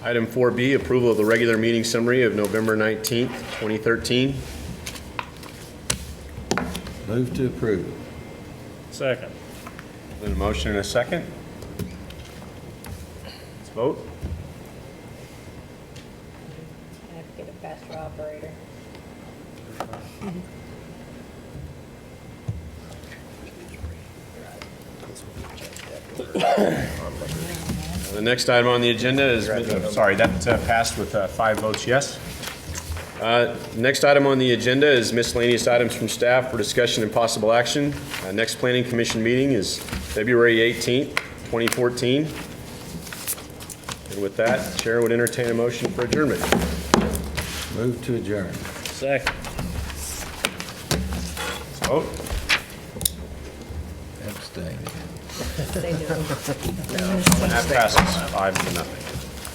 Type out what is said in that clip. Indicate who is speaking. Speaker 1: Item 4B, approval of the regular meeting summary of November 19th, 2013.
Speaker 2: Move to approve.
Speaker 3: Second.
Speaker 1: Then a motion and a second. Let's vote.
Speaker 4: I have to get a faster operator.
Speaker 1: The next item on the agenda is, sorry, that uh, passed with uh, five votes yes. Uh, Next item on the agenda is miscellaneous items from staff for discussion and possible action. Uh, Next Planning Commission meeting is February 18th, 2014. And with that, Chair would entertain a motion for adjournment.
Speaker 2: Move to adjourn.
Speaker 3: Second.
Speaker 1: Vote.
Speaker 2: Abstain.
Speaker 4: They do.
Speaker 1: That passes five to nothing.